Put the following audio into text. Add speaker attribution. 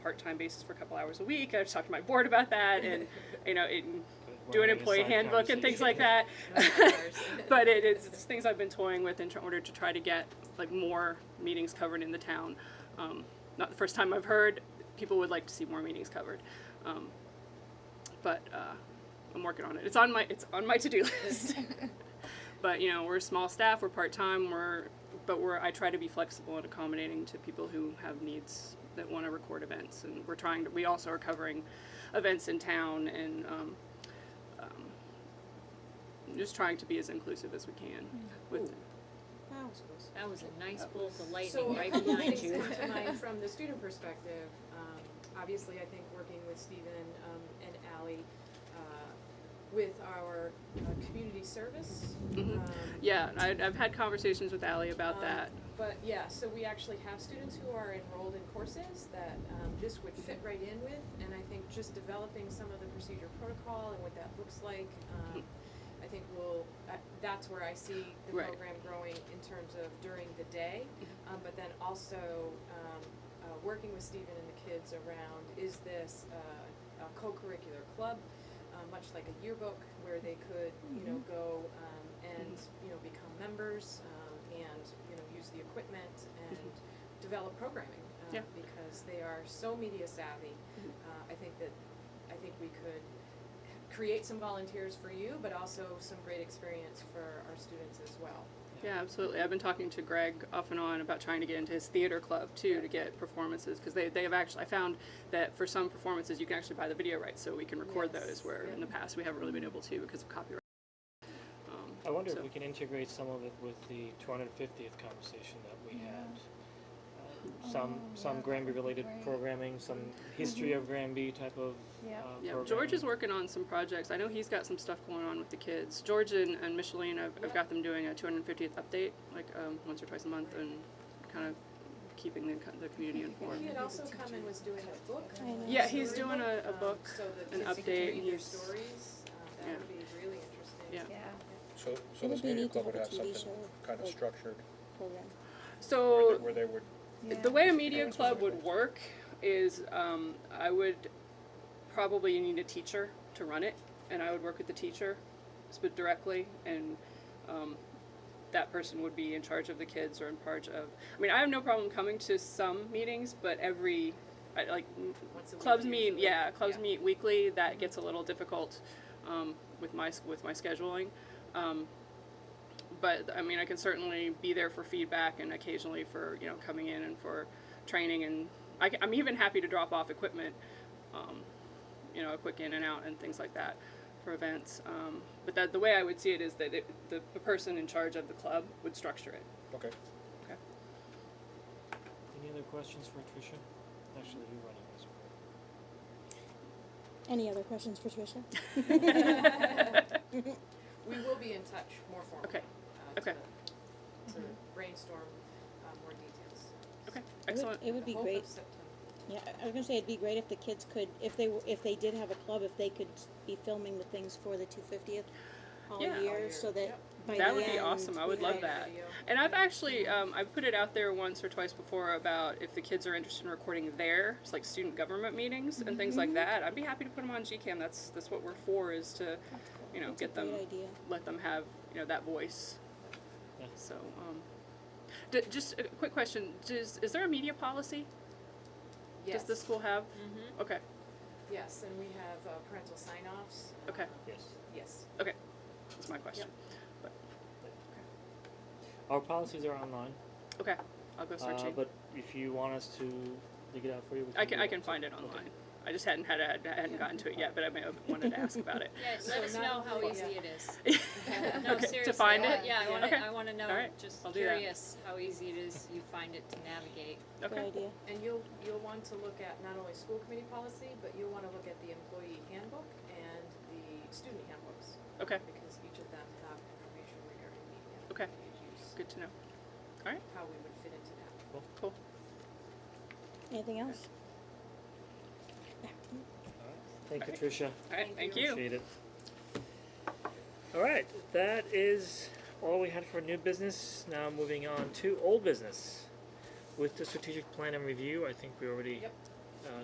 Speaker 1: part-time basis for a couple hours a week. I've talked to my board about that, and you know, it, do an employee handbook and things like that. but it is it's things I've been toying with in tr- order to try to get like more meetings covered in the town. Um, not the first time I've heard people would like to see more meetings covered, um, but uh, I'm working on it. It's on my it's on my to do list. but you know, we're a small staff. We're part time. We're but we're I try to be flexible and accommodating to people who have needs that want to record events, and we're trying to. We also are covering events in town and. Um, just trying to be as inclusive as we can with
Speaker 2: That was a nice bolt of
Speaker 3: So
Speaker 2: lightning
Speaker 3: a
Speaker 2: right
Speaker 3: couple
Speaker 2: behind
Speaker 3: things
Speaker 2: you.
Speaker 3: come to mind from the student perspective. Um, obviously, I think working with Stephen um, and Ally, uh, with our uh, community service.
Speaker 1: Mhm.
Speaker 3: um,
Speaker 1: yeah I, i've had conversations with ali about
Speaker 3: Um,
Speaker 1: that
Speaker 3: But yeah, so we actually have students who are enrolled in courses that um, this would fit right in with, and I think just developing some of the procedure protocol and what that looks like, um, I think will, uh, that's where I see the
Speaker 1: Mm-hmm. Right.
Speaker 3: program growing in terms of during the day, um, but then also um, uh, working with Stephen and the kids around, is this uh, a co-curricular club? uh, much like a yearbook where they could, you know, go um, and, you know, become members um, and, you know, use the equipment and develop programming. uh,
Speaker 1: Yeah.
Speaker 3: Because they are so media savvy. Uh, I think that, I think we could create some volunteers for you, but also some great experience for our students as well.
Speaker 1: yeah absolutely i've been talking to greg off and on about trying to get into his theater club too to get performances because they, they have actually i found that for some performances you can actually buy the video rights so we can record
Speaker 3: Yes,
Speaker 1: those where
Speaker 3: yeah.
Speaker 1: in the past we haven't really been able to because of copyright um,
Speaker 4: I wonder
Speaker 1: so-
Speaker 4: if we can integrate some of it with the 250th conversation that we had. Uh, Some
Speaker 5: Mm-hmm. Oh, yeah,
Speaker 4: some
Speaker 5: that
Speaker 4: Granby
Speaker 5: would be
Speaker 4: related
Speaker 5: great. Mm-hmm.
Speaker 4: programming, some history of Granby type of. uh,
Speaker 5: Yeah.
Speaker 1: yeah,
Speaker 4: programming.
Speaker 1: George is working on some projects. I know he's got some stuff going on with the kids. George and, and Micheline, I've, I've got them doing a 250th update, like um, once or twice a month, and kind of keeping the, co- the community informed.
Speaker 3: He had also come and was doing a book.
Speaker 5: I know.
Speaker 1: Yeah, he's
Speaker 3: storybook,
Speaker 1: doing a- a
Speaker 3: um,
Speaker 1: book,
Speaker 3: So the
Speaker 1: an
Speaker 3: kids could
Speaker 1: update,
Speaker 3: read their
Speaker 1: he's-
Speaker 3: stories. Uh,
Speaker 1: yeah.
Speaker 3: That would be really interesting.
Speaker 1: Yeah.
Speaker 5: Yeah,
Speaker 6: So, so
Speaker 5: It would
Speaker 6: this
Speaker 5: be
Speaker 6: media
Speaker 5: neat to
Speaker 6: club would
Speaker 5: have a
Speaker 6: have
Speaker 5: TV
Speaker 6: something
Speaker 5: show,
Speaker 6: kind of
Speaker 5: like-
Speaker 6: structured,
Speaker 5: program.
Speaker 1: So
Speaker 6: where they- where they would,
Speaker 5: Yeah.
Speaker 1: The way a media club would work is um, I would probably need a teacher to run it, and I would work with the teacher sp- directly, and um, that person would be in charge of the kids or in charge of. I mean, I have no problem coming to some meetings, but every I, like m-
Speaker 3: Once a week
Speaker 1: clubs meet,
Speaker 3: usually.
Speaker 1: yeah, clubs
Speaker 3: Yeah. Mm-hmm.
Speaker 1: meet weekly. That gets a little difficult um, with my s- with my scheduling. Um, but I mean, I can certainly be there for feedback and occasionally for you know coming in and for training, and I, am even happy to drop off equipment, um, you know, a quick in and out and things like that for events. Um, but that the way I would see it is that it, the, the person in charge of the club would structure it.
Speaker 6: okay.
Speaker 1: Okay.
Speaker 4: Any other questions for Tricia? Actually, you're running this one.
Speaker 5: Any other questions for Tricia?
Speaker 3: We will be in touch more formally.
Speaker 1: Okay.
Speaker 3: uh,
Speaker 1: Okay.
Speaker 3: To, to
Speaker 5: Mm-hmm.
Speaker 3: brainstorm uh, more details.
Speaker 1: Okay,
Speaker 5: It would-
Speaker 1: excellent.
Speaker 5: It would
Speaker 3: The
Speaker 5: be
Speaker 3: hope
Speaker 5: great,
Speaker 3: of September.
Speaker 5: yeah, I was gonna say, it'd be great if the kids could, if they, were- if they did have a club, if they could be filming the things for the two fiftieth all
Speaker 1: Yeah.
Speaker 3: All
Speaker 5: year,
Speaker 3: year.
Speaker 5: so that
Speaker 3: Yep.
Speaker 5: by the
Speaker 1: That
Speaker 5: end.
Speaker 1: would be awesome. I
Speaker 5: we
Speaker 1: would love
Speaker 5: have-
Speaker 1: that.
Speaker 3: Video.
Speaker 1: And I've actually um, I've put it out there once or twice before about if the kids are interested in recording their it's like student government meetings and things
Speaker 5: Mm-hmm.
Speaker 1: like that. I'd be happy to put them on GCAM. That's that's what we're for is to, you know,
Speaker 5: That's a
Speaker 1: get them
Speaker 5: Great idea.
Speaker 1: let them have you know that voice.
Speaker 4: Yeah.
Speaker 1: So, um, d- just a quick question: Does is there a media policy?
Speaker 3: Yes.
Speaker 1: Does the school have?
Speaker 3: Mhm.
Speaker 1: Okay,
Speaker 3: Yes, and we have uh, parental sign-offs. uh,
Speaker 1: Okay.
Speaker 4: Yes.
Speaker 3: Yes.
Speaker 1: okay, that's my question.
Speaker 4: Our policies are online,
Speaker 1: Okay, I'll go
Speaker 4: uh,
Speaker 1: searching.
Speaker 4: but if you want us to dig it out for you, we can.
Speaker 1: I can
Speaker 4: do
Speaker 1: I
Speaker 4: that.
Speaker 1: can find it online. I just hadn't had a, I hadn't gotten to it yet, but I may have wanted to ask about it.
Speaker 2: Yeah,
Speaker 3: So
Speaker 2: let us
Speaker 3: not
Speaker 2: know how
Speaker 3: only-
Speaker 2: easy it is. No,
Speaker 1: okay, to
Speaker 2: seriously.
Speaker 1: find
Speaker 2: I
Speaker 1: it.
Speaker 2: want- Yeah, I wanna,
Speaker 1: Okay.
Speaker 2: I wanna
Speaker 1: All
Speaker 2: know,
Speaker 1: right.
Speaker 2: just
Speaker 1: I'll do that.
Speaker 2: curious how easy it is you find it to navigate.
Speaker 5: Good
Speaker 1: Okay.
Speaker 5: idea.
Speaker 3: And you'll, you'll want to look at not only school committee policy, but you'll want to look at the employee handbook and the student handbooks,
Speaker 1: Okay.
Speaker 3: because each of them have information regarding media.
Speaker 1: Okay.
Speaker 3: media use,
Speaker 1: Good to know.
Speaker 3: How we would fit into that.
Speaker 1: Cool.
Speaker 5: Anything else?
Speaker 4: Thank you,
Speaker 1: Alright.
Speaker 4: Tricia.
Speaker 1: All right. Thank,
Speaker 3: Thank
Speaker 1: you.
Speaker 4: Appreciate it. All right, that is all we had for new business. Now moving on to old business. With the strategic plan and review, I think we already
Speaker 3: Yep.